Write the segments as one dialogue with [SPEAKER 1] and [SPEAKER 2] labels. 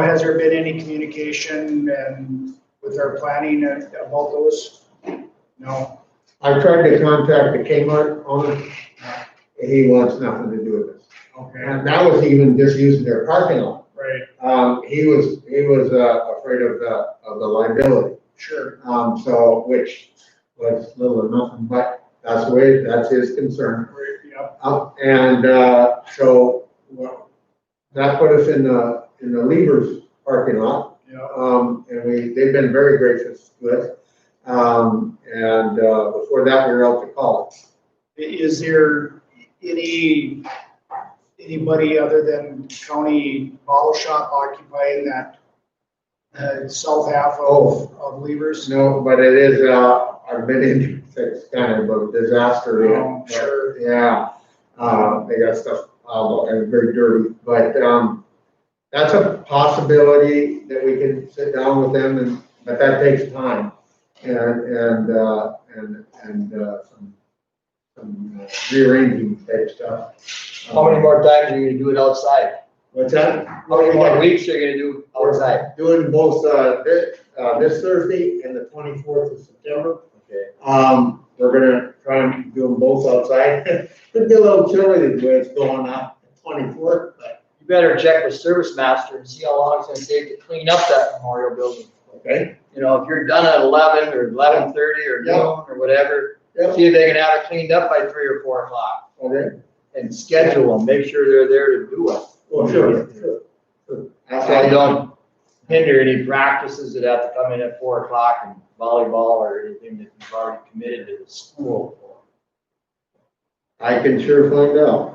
[SPEAKER 1] Has there been any communication and with our planning and about those? No,
[SPEAKER 2] I tried to contact the Kmart owner, and he wants nothing to do with this.
[SPEAKER 1] okay,
[SPEAKER 2] And that was even just using their parking lot.
[SPEAKER 1] right,
[SPEAKER 2] Um, he was, he was, uh, afraid of the, of the liability.
[SPEAKER 1] sure,
[SPEAKER 2] Um, so, which was little or nothing, but that's the way, that's his concern.
[SPEAKER 1] right, yeah,
[SPEAKER 2] Uh, and, uh, so, well, that put us in the, in the Levers parking lot.
[SPEAKER 1] yeah,
[SPEAKER 2] Um, and we, they've been very gracious to us. Um, and, uh, before that, we were out to college.
[SPEAKER 1] I- is there any, anybody other than county bottle shop occupying that uh, south half of, of Levers?
[SPEAKER 2] No, but it is, uh, I've been in, it's kind of a disaster. you know,
[SPEAKER 3] Oh,
[SPEAKER 1] Um, Sure,
[SPEAKER 2] but, Yeah, uh, they got stuff, uh, and very dirty, but, um, that's a possibility that we can sit down with them and, but that takes time. And, and, uh, and, and, uh, some, some uh, rearranging type stuff. Um,
[SPEAKER 3] How many more times are you gonna do it outside?
[SPEAKER 2] What's that?
[SPEAKER 3] How many more weeks are you gonna do outside?
[SPEAKER 2] Doing both, uh, this, uh, this Thursday and the twenty-fourth of September.
[SPEAKER 3] Okay.
[SPEAKER 2] Um, we're gonna try and do them both outside. Could be a little chilly the way it's going up, twenty-fourth, but,
[SPEAKER 3] You better check with Service Master and see how long it's gonna take to clean up that memorial building.
[SPEAKER 2] okay.
[SPEAKER 3] You know, if you're done at eleven or eleven thirty or
[SPEAKER 2] Yeah.
[SPEAKER 3] noon or whatever,
[SPEAKER 2] Yep.
[SPEAKER 3] see if they can have it cleaned up by three or four o'clock
[SPEAKER 2] Okay.
[SPEAKER 3] and schedule them, make sure they're there to do it.
[SPEAKER 2] Well, sure, sure.
[SPEAKER 3] So you don't hinder any practices that have to come in at four o'clock and volleyball or anything that you've already committed to the school for.
[SPEAKER 2] I can sure find out.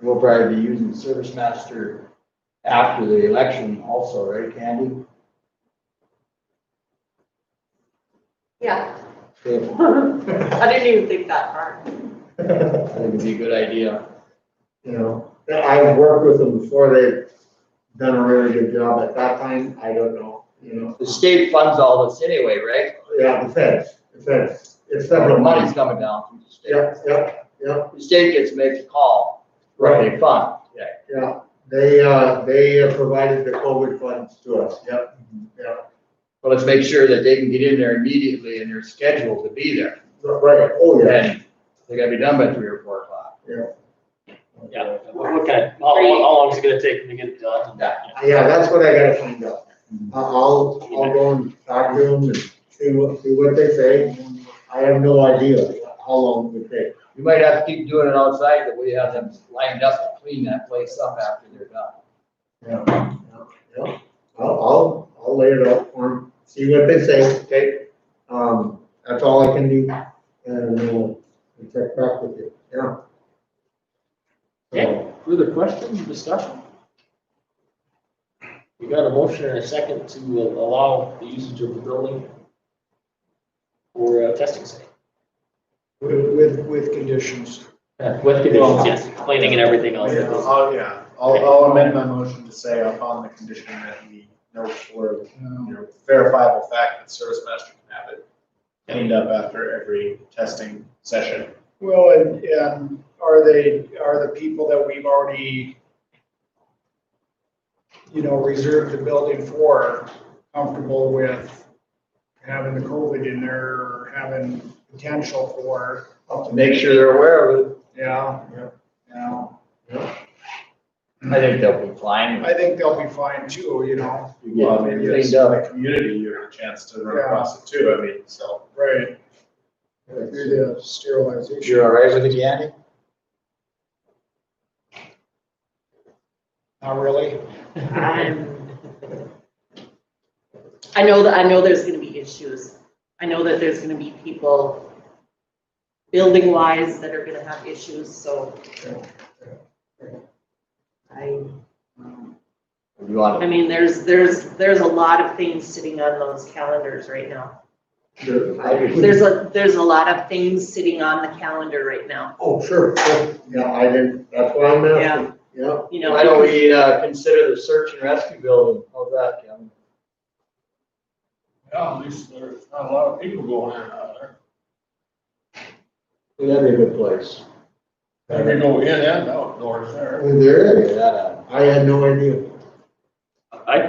[SPEAKER 3] We'll probably be using Service Master after the election also, right, Candy?
[SPEAKER 4] Yeah,
[SPEAKER 3] Okay,
[SPEAKER 4] I didn't even think that far.
[SPEAKER 3] I think it'd be a good idea.
[SPEAKER 2] You know, I've worked with them before, they've done a really good job at that time, I don't know, you know.
[SPEAKER 3] The state funds all this anyway, right?
[SPEAKER 2] Yeah, the feds, the feds, it's
[SPEAKER 3] The
[SPEAKER 2] several
[SPEAKER 3] money's
[SPEAKER 2] months.
[SPEAKER 3] coming down from the state.
[SPEAKER 2] Yep, yep, yep.
[SPEAKER 3] The state gets to make the call, what they fund. Yeah.
[SPEAKER 2] Yeah, they, uh, they uh, provided the COVID funds to us, yep, yeah.
[SPEAKER 3] But let's make sure that they can get in there immediately and they're scheduled to be there.
[SPEAKER 2] Right, oh, yeah.
[SPEAKER 3] And they gotta be done by three or four o'clock.
[SPEAKER 5] Yeah, what what kind of, how, how
[SPEAKER 4] Great.
[SPEAKER 5] how long is it gonna take them to get it done?
[SPEAKER 3] Yeah.
[SPEAKER 2] Yeah, that's what I gotta find out. I- I'll, I'll go and talk to them and see what, see what they say. I have no idea how long it would take.
[SPEAKER 3] You might have to keep doing it outside, but we have them lined up to clean that place up after they're done.
[SPEAKER 2] Yeah, yeah, yeah. I'll, I'll, I'll lay it out for them, see what they say, okay? Um, that's all I can do, and we'll we'll check back with you, yeah.
[SPEAKER 5] Okay. Further questions, discussion? We got a motion and a second to allow the usage of the building for uh, testing site.
[SPEAKER 1] with, with, with conditions.
[SPEAKER 5] With conditions, yes, cleaning and everything else.
[SPEAKER 6] Yeah, I'll, yeah, I'll, I'll amend my motion to say upon the condition that we know for, you
[SPEAKER 1] Um,
[SPEAKER 6] know, verifiable fact that service master can have it cleaned up after every testing session.
[SPEAKER 1] Well, and, and are they, are the people that we've already, you know, reserved the building for comfortable with having the COVID in there, or having potential for,
[SPEAKER 3] Make sure they're aware of it.
[SPEAKER 1] yeah,
[SPEAKER 2] Yeah.
[SPEAKER 1] yeah.
[SPEAKER 3] I think they'll be fine.
[SPEAKER 1] I think they'll be fine too, you know,
[SPEAKER 3] Yeah,
[SPEAKER 6] Well, I mean,
[SPEAKER 3] cleaned
[SPEAKER 6] it's
[SPEAKER 3] up.
[SPEAKER 6] the community, you have a chance to run
[SPEAKER 1] Yeah.
[SPEAKER 6] across it too, I mean, so.
[SPEAKER 1] right,
[SPEAKER 2] Yeah,
[SPEAKER 1] through the sterilization.
[SPEAKER 3] You're all right with it, Yanni?
[SPEAKER 1] Not really,
[SPEAKER 4] I'm- Um, I know that, I know there's gonna be issues. I know that there's gonna be people building wise that are gonna have issues, so. I,
[SPEAKER 3] If you want
[SPEAKER 4] I mean, there's, there's, there's a lot of things sitting on those calendars right now.
[SPEAKER 2] Sure.
[SPEAKER 3] I agree.
[SPEAKER 4] There's a, there's a lot of things sitting on the calendar right now,
[SPEAKER 2] Oh, sure, sure. yeah, I didn't, that's why I'm
[SPEAKER 4] Yeah.
[SPEAKER 2] asking, yeah.
[SPEAKER 4] you
[SPEAKER 3] to.
[SPEAKER 4] know.
[SPEAKER 3] Why don't we, uh, consider the search and rescue building? How's that, Kevin?
[SPEAKER 7] Yeah, at least there's not a lot of people going in and out of there.
[SPEAKER 3] That'd be a good place.
[SPEAKER 7] And we go in and out doors there.
[SPEAKER 2] There it
[SPEAKER 3] Figure
[SPEAKER 2] is.
[SPEAKER 3] that out.
[SPEAKER 2] I had no idea.